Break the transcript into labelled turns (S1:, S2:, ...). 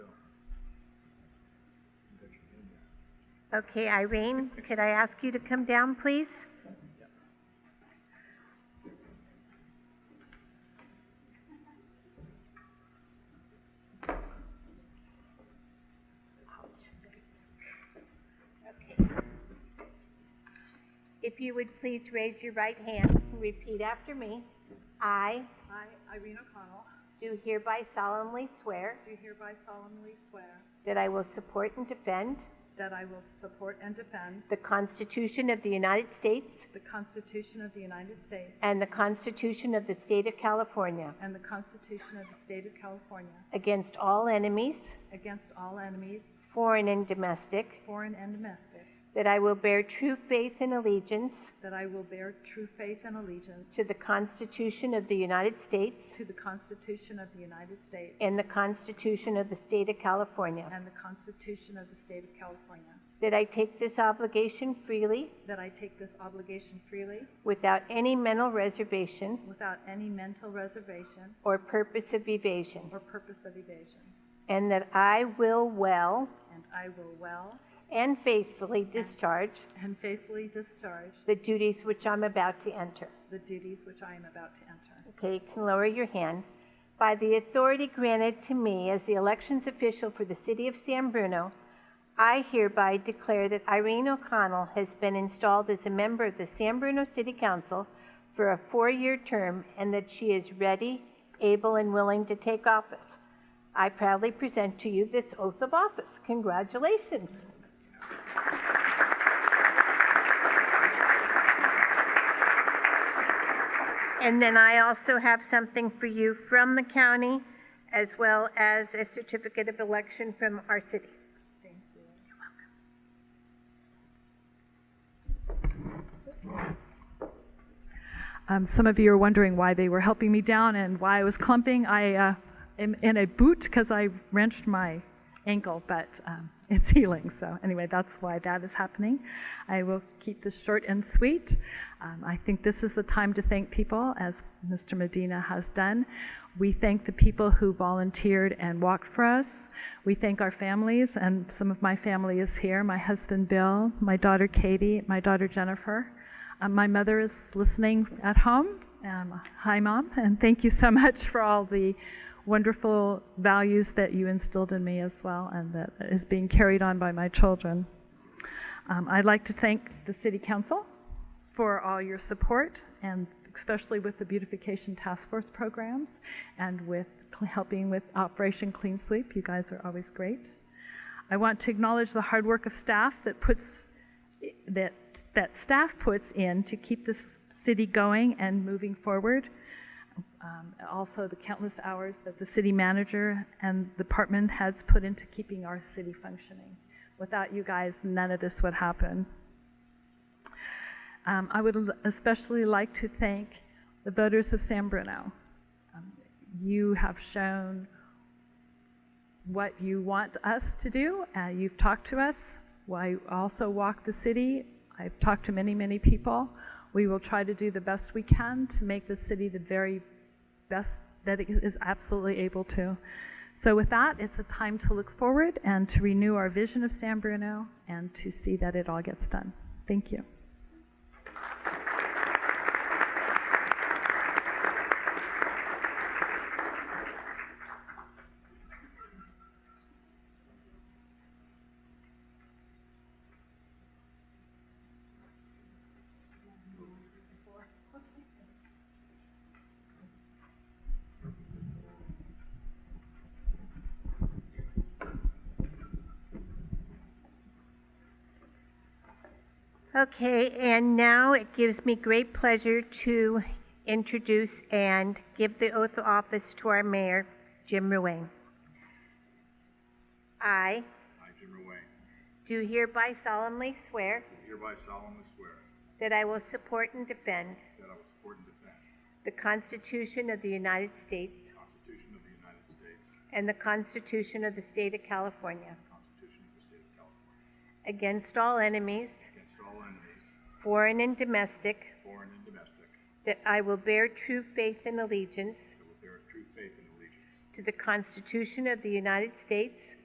S1: Okay, Irene, could I ask you to come down, please? Okay. If you would please raise your right hand and repeat after me. I
S2: I, Irene O'Connell,
S1: do hereby solemnly swear
S2: do hereby solemnly swear
S1: that I will support and defend
S2: that I will support and defend
S1: the Constitution of the United States
S2: the Constitution of the United States
S1: and the Constitution of the State of California
S2: and the Constitution of the State of California
S1: against all enemies,
S2: against all enemies,
S1: foreign and domestic,
S2: foreign and domestic,
S1: that I will bear true faith and allegiance
S2: that I will bear true faith and allegiance
S1: to the Constitution of the United States
S2: to the Constitution of the United States
S1: and the Constitution of the State of California,
S2: and the Constitution of the State of California,
S1: that I take this obligation freely
S2: that I take this obligation freely
S1: without any mental reservation
S2: without any mental reservation
S1: or purpose of evasion,
S2: or purpose of evasion,
S1: and that I will well
S2: and I will well
S1: and faithfully discharge
S2: and faithfully discharge
S1: the duties which I'm about to enter.
S2: the duties which I am about to enter.
S1: Okay, you can lower your hand. By the authority granted to me as the elections official for the City of San Bruno, I hereby declare that Irene O'Connell has been installed as a member of the San Bruno City Council for a four-year term and that she is ready, able, and willing to take office. I proudly present to you this oath of office. Congratulations. And then I also have something for you from the county, as well as a certificate of election from our city.
S2: Thank you. Um, some of you are wondering why they were helping me down and why I was clumping. I uh, am in a boot because I wrenched my ankle, but um, it's healing. So, anyway, that's why that is happening. I will keep this short and sweet. Um, I think this is the time to thank people, as Mr. Medina has done. We thank the people who volunteered and walked for us. We thank our families, and some of my family is here my husband Bill, my daughter Katie, my daughter Jennifer. Uh, my mother is listening at home. Um, hi, Mom, and thank you so much for all the wonderful values that you instilled in me as well, and that is being carried on by my children. Um, I'd like to thank the City Council for all your support, and especially with the Beautification Task Force programs and with cl- helping with Operation Clean Sweep. You guys are always great. I want to acknowledge the hard work of staff that puts that that staff puts in to keep this city going and moving forward. Um, also, the countless hours that the city manager and department heads put into keeping our city functioning. Without you guys, none of this would happen. Um, I would l- especially like to thank the voters of San Bruno. Um, you have shown what you want us to do. Uh, you've talked to us. I also walk the city. I've talked to many, many people. We will try to do the best we can to make the city the very best that it is absolutely able to. So, with that, it's a time to look forward and to renew our vision of San Bruno and to see that it all gets done. Thank you.
S1: Okay, and now it gives me great pleasure to introduce and give the oath of office to our mayor, Jim Ruane.
S3: I,
S1: I
S3: Jim Ruane,
S1: do hereby solemnly swear
S3: do hereby solemnly swear
S1: that I will support and defend
S3: that I will support and defend
S1: the Constitution of the United States
S3: the Constitution of the United States,
S1: and the Constitution of the State of California
S3: the Constitution of the State of California,
S1: against all enemies,
S3: against all enemies,
S1: foreign and domestic,
S3: foreign and domestic, that
S1: that I will bear true faith and allegiance
S3: will bear true faith and allegiance
S1: to the Constitution of the United States